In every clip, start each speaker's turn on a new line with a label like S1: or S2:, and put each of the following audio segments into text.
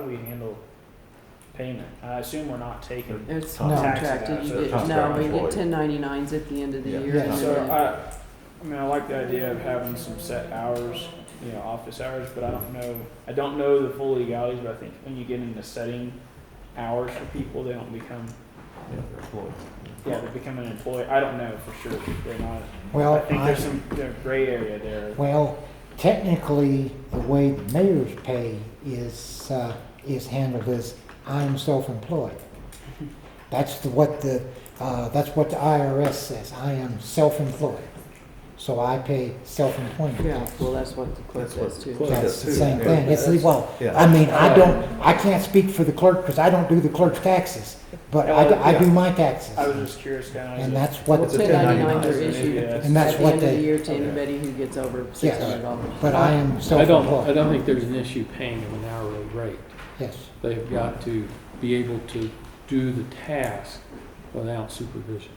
S1: do we handle payment? I assume we're not taking.
S2: Mm-hmm.
S3: It's
S1: No.
S3: contracted, you
S1: Taxes, so
S3: get, no, we get
S4: contract
S3: ten ninety-nines at the end of the
S4: Yeah.
S3: year.
S2: Yeah. uh,
S3: and
S1: So
S3: then-
S1: I, I mean, I like the idea of having some set hours, you know, office hours, but I don't know, I don't know the full legalities, but I think when you get into setting hours for people, they don't become,
S4: Yeah, they're employees.
S1: yeah, they become an employee. I don't know for sure. They're not.
S2: Well,
S1: I think
S2: I-
S1: there's some there's gray area there.
S2: Well, technically, the way the mayor's pay is, uh, is handled is I'm self-employed. That's the, what the, uh, that's what the IRS says, I am self-employed. So I pay self-employment
S3: Yeah,
S2: tax.
S3: well, that's what the clerk
S4: That's what
S3: does
S4: the
S3: too.
S4: clerk-
S2: That's the
S4: Yeah,
S2: same
S4: yeah,
S2: thing, it's,
S4: that's-
S2: well,
S4: yeah.
S2: I mean, I don't, I can't speak for the clerk, because I don't do the clerk's taxes, but I, do- I do my taxes.
S1: I was just curious, kind of.
S2: And that's
S3: Well,
S2: what,
S4: It's a
S3: ten ninety-nines
S4: 1099s
S3: are
S4: and
S3: issued
S1: ABS.
S3: at
S2: And
S3: the
S2: that's what
S3: end of the
S2: they-
S3: year to
S4: Okay.
S3: anybody who gets over six hundred dollars.
S2: but I am
S5: I don't, I
S2: self-employed,
S5: don't think there's an issue paying them an hourly rate.
S2: yes.
S5: They've got to be able to do the task without supervision.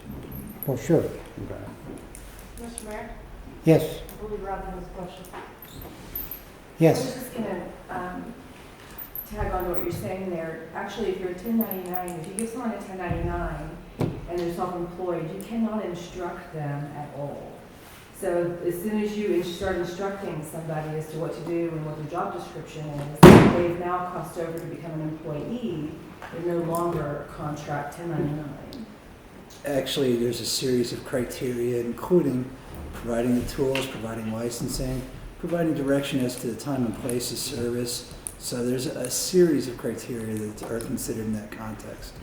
S2: Well, sure,
S5: Okay.
S6: Mr. Mayor,
S2: yes,
S6: I believe Robin has a question. I
S2: yes,
S6: was just gonna, um, tag on to what you're saying there. Actually, if you're a ten ninety-nine, if you give someone a ten ninety-nine and they're self-employed, you cannot instruct them at all. So as soon as you ins- start instructing somebody as to what to do and what their job description is, they've now crossed over to become an employee. They're no longer a contract ten ninety-nine.
S7: Actually, there's a series of criteria, including providing the tools, providing licensing, providing direction as to the time and place of service. So there's a series of criteria that are considered in that context.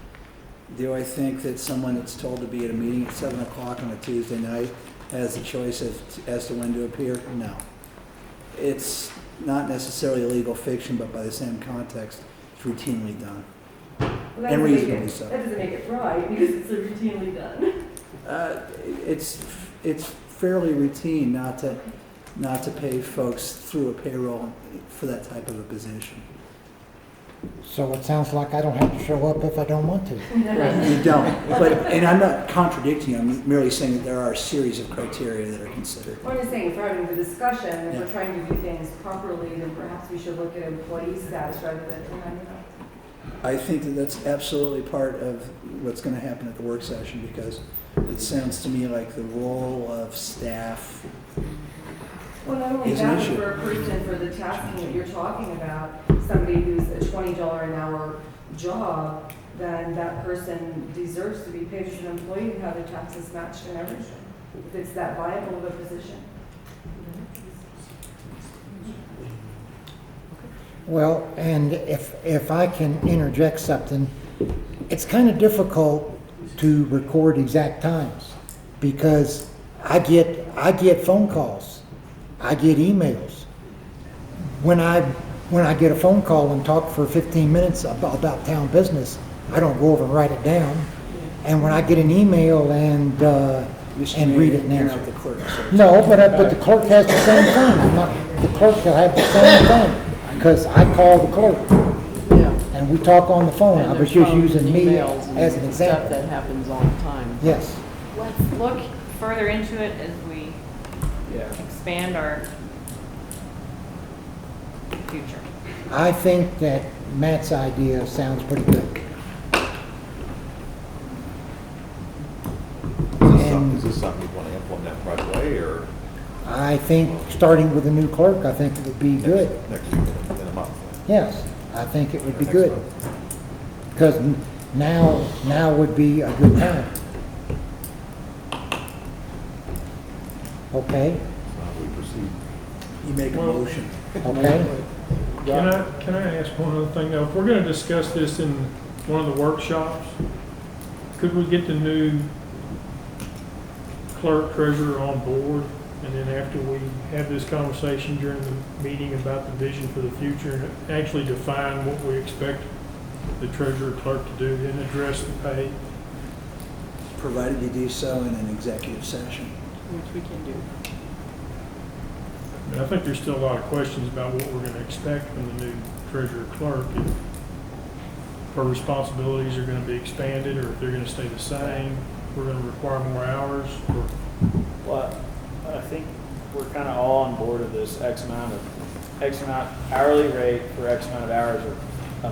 S7: Do I think that someone that's told to be at a meeting at seven o'clock on a Tuesday night has the choice of, as to when to appear? No. It's not necessarily legal fiction, but by the same context, it's routinely done.
S6: Well, that
S7: And
S6: doesn't make it-
S7: reasonably so.
S6: That doesn't make it right because it's routinely done.
S7: Uh, it's, it's fairly routine not to, not to pay folks through a payroll for that type of a position.
S2: so it sounds like I don't have to show up if I don't want to.
S7: You don't, but, and I'm not contradicting you, I'm merely saying that there are a series of criteria that are considered.
S6: Well, I'm just saying, if we're having the discussion, if we're
S7: Yeah.
S6: trying to do things properly, then perhaps we should look at employee status rather than, I don't know.
S7: I think that that's absolutely part of what's going to happen at the work session because it sounds to me like the role of staff,
S6: Well, not only
S7: It's an
S6: that, but
S7: issue.
S6: for a person for the tasking that you're talking about, somebody who's a twenty dollar an hour job, then that person deserves to be paid as an employee and have their taxes matched and everything, if it's that viable of a position.
S2: Well, and if, if I can interject something, it's kind of difficult to record exact times because I get, I get phone calls, I get emails. When I, when I get a phone call and talk for 15 minutes about, about town business, I don't go over and write it down. And when I get an email and, uh,
S7: Mr.
S2: and read it and
S7: Mayor,
S2: answer
S7: you're
S2: it.
S7: not the clerk, so
S2: No, but, I- but the clerk has the same thing. I'm not, the clerk will have the same thing, because I call the clerk
S3: Yeah.
S2: and we talk on the phone. I
S3: And
S2: was
S3: there's
S2: just
S3: phone
S2: using me
S3: emails and
S2: as an
S3: Stuff
S2: example.
S3: that happens all the time.
S2: Yes,
S8: Let's look further into it as we
S1: Yeah.
S8: expand our future.
S2: I think that Matt's idea sounds pretty good.
S4: Is this some-
S2: And-
S4: is this something you want to implement right away or
S2: I think, starting with a new clerk, I think it would be good.
S4: next, next, in a month?
S2: Yes, I think it would be
S4: Next
S2: good,
S4: month?
S2: because now, now would be a good time. Okay,
S4: So how do we proceed?
S7: you make a motion.
S2: okay.
S9: Can I, can I ask one other thing? Now, if we're gonna discuss this in one of the workshops, could we get the new clerk treasurer on board? And then after we have this conversation during the meeting about the vision for the future, and actually define what we expect the treasurer clerk to do, then address the pay?
S7: provided you do so in an executive session.
S3: Which we can do.
S9: And I think there's still a lot of questions about what we're gonna expect from the new treasurer clerk. if Her responsibilities are gonna be expanded, or if they're gonna stay the same, we're gonna require more hours, or
S1: Well, I think we're kind of all on board of this X amount of, X amount hourly rate for X amount of hours or